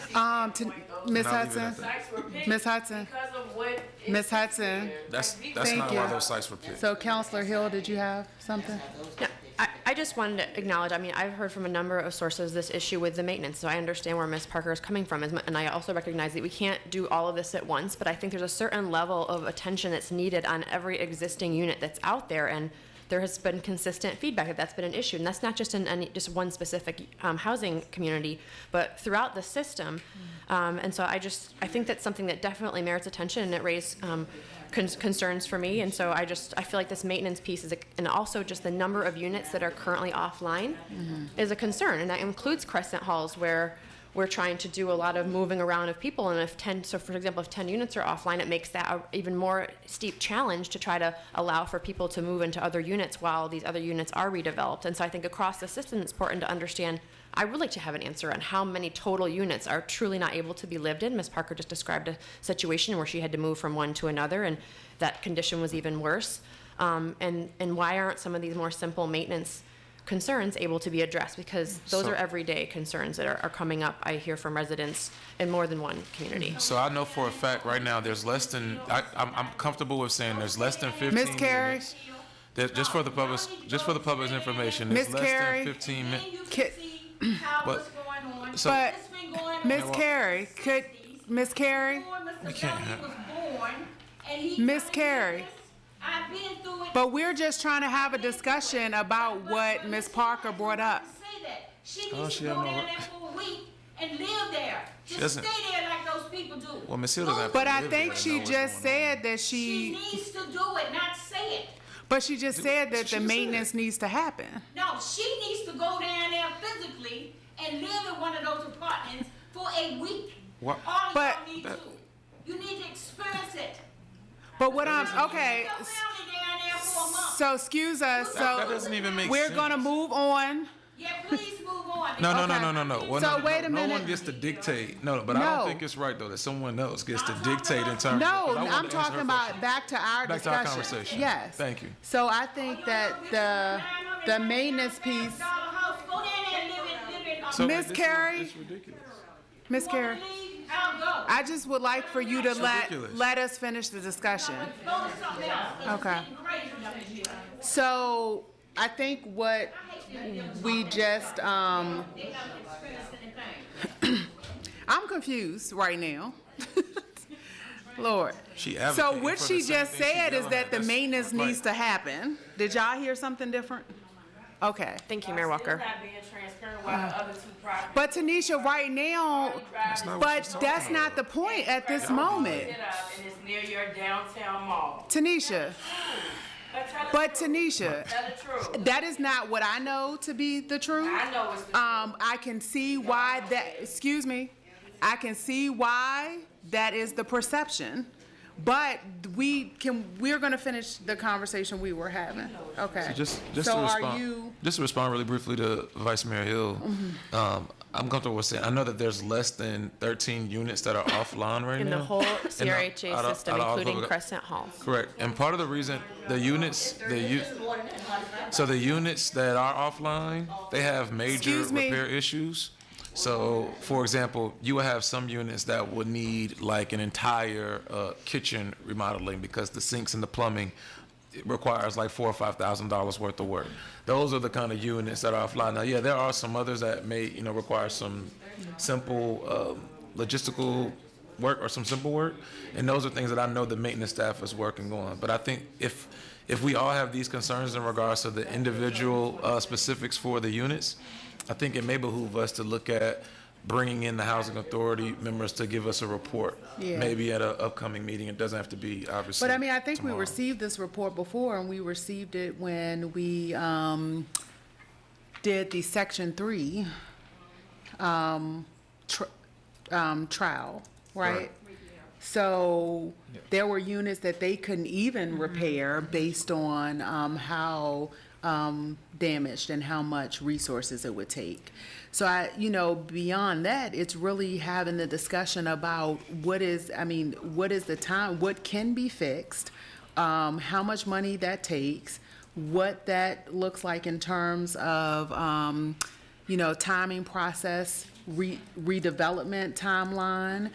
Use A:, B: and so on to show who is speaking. A: um, to Miss
B: Not leaving
A: Hudson?
B: it at
C: Sites were picked
A: Ms. Hudson.
C: Because of what. is
A: Ms. Hudson.
C: there.
B: That's,
C: Like, we
B: that's
C: can't-
B: not
A: Thank
B: why
A: you.
B: those sites were picked.
A: So Counselor Hill, did you have something?
D: No, I, I just wanted to acknowledge, I mean, I've heard from a number of sources this issue with the maintenance, so I understand where Ms. Parker is coming from, as mu- and I also recognize that we can't do all of this at once, but I think there's a certain level of attention that's needed on every existing unit that's out there, and there has been consistent feedback that that's been an issue, and that's not just in any, just one specific um, housing community, but throughout the system. Um, And so I just, I think that's something that definitely merits attention, and it raised um, cons- concerns for me, and so I just, I feel like this maintenance piece is, a- and also just the number of units that are currently offline is a concern, and that includes Crescent Halls, where we're trying to do a lot of moving around of people, and if 10, so for example, if 10 units are offline, it makes that a even more steep challenge to try to allow for people to move into other units while these other units are redeveloped, and so I think across the system, it's important to understand, I would like to have an answer on how many total units are truly not able to be lived in. Ms. Parker just described a situation where she had to move from one to another, and that condition was even worse. Um, and, and why aren't some of these more simple maintenance concerns able to be addressed? Because those
B: So-
D: are everyday concerns that are, are coming up, I hear from residents in more than one community.
B: So I know for a fact, right now, there's less than, I, I'm, I'm comfortable with saying there's less than fifteen
A: Miss Carey?
B: units. That, just for the public, just for the public's information, there's
A: Miss
B: less
A: Carey?
B: than fifteen.
C: And
B: mi-
C: you
A: Ki-
C: can see how
B: But-
C: what's going on.
B: so-
A: But-
C: This been going on
A: Miss
C: since
A: Carey, could, Miss Carey?
C: before Mr.
B: We can't
C: Felty
B: have-
C: was born, and he
A: Miss
C: coming
A: Carey.
C: to this. I've been through it.
A: But we're just trying to have a discussion about what Ms. Parker brought up.
C: Say that. She
B: Oh,
C: needs
B: she
C: to go
B: don't know
C: down
B: what-
C: there for a week and live there. Just
B: doesn't-
C: stay there like those people do.
B: Well, Miss Hill doesn't have to
A: But I
B: live
A: think
B: there to know
A: she
B: what's
A: just
B: going on.
A: said that
C: She
A: she,
C: needs to do it, not say it.
A: but she just said that
B: She
A: the
B: just said
A: maintenance needs to happen.
C: No, she needs to go down there physically and live in one of those apartments for a week.
B: What-
C: All
A: But-
C: y'all need to. You need to experience it.
A: But what I'm, okay,
C: Your family down there for a month.
A: so excuse us,
B: That, that
A: so
B: doesn't even make sense.
A: we're gonna move on.
C: Yeah, please move on.
B: No, no, no,
A: Okay.
B: no, no, no. Well,
A: So
B: no,
A: wait
B: no,
A: a
B: No
A: minute.
B: one gets to dictate. No, no, but I
A: No.
B: don't think it's right though that someone else gets to dictate in
A: No,
B: terms. of, 'cause I wanna
A: I'm
B: answer her
A: talking
B: question.
A: about back to our
B: Back to our
A: discussion.
B: conversation.
A: Yes.
B: Thank you.
A: So I think that the, the maintenance piece,
C: um,
B: So-
A: Miss
B: This is-
A: Carey?
B: this is ridiculous.
A: Ms. Carey,
C: I'll go.
A: I just would like for you to let,
B: ridiculous.
A: let us finish the discussion.
C: Go to something else.
A: Okay.
C: Crazy.
A: So I think what we just, um,
C: They haven't experienced anything.
A: I'm confused right now. Lord.
B: She
A: So
B: advocating
A: what
B: for
A: she
B: the same
A: just
B: thing she
A: said is
B: yelling
A: that
B: at.
A: the
B: That's-
A: maintenance
B: like-
A: needs to happen. Did y'all hear something different? Okay.
D: Thank you, Mayor Walker.
E: Still not being transparent while the other two properties.
A: But Tanisha, right now,
E: That's
B: not what
A: but
B: she's talking
A: that's not the point at this moment.
E: Sit up and it's near your downtown mall.
A: Tanisha,
E: But tell the
A: but
E: truth.
A: Tanisha,
E: Tell the truth.
A: that is not what I know to be the truth.
E: I know it's the
A: Um, I can see why that, excuse me, I can see why that is the perception. But we can, we're gonna finish the conversation we were having. Okay.
B: Just, just
A: So
B: to
A: are
B: respond,
A: you, Mm-hmm.
B: just to respond really briefly to Vice Mayor Hill, um, I'm comfortable with saying I know that there's less than 13 units that are offline right
D: In
B: now
D: the whole
B: In the-
D: CRHA
B: out of-
D: system,
B: uh, out of all the-
D: including Crescent Halls.
B: Correct, and part of the reason the units the u- so the units that are offline they have major
A: Excuse me.
B: repair issues. So, for example, you will have some units that would need like an entire uh, kitchen remodeling because the sinks and the plumbing it requires like four or five thousand dollars worth of work. Those are the kind of units that are offline. Now, yeah, there are some others that may you know require some simple um, logistical work or some simple work, and those are things that I know the maintenance staff is working on. But I think if if we all have these concerns in regards to the individual uh, specifics for the units, I think it may behoove us to look at bringing in the housing authority members to give us a report,
A: Yeah.
B: maybe at an upcoming meeting. It doesn't have to be obviously.
A: but I mean, I think we
B: tomorrow.
A: received this report before and we received it when we, um, did the section three, um, tr- um, trial, right?
B: Right.
A: So there were units that they couldn't even repair based on um, how um, damaged and how much resources it would take. So I, you know, beyond that, it's really having the discussion about what is, I mean, what is the time, what can be fixed, um, how much money that takes, what that looks like in terms of, um, you know, timing process re- redevelopment timeline.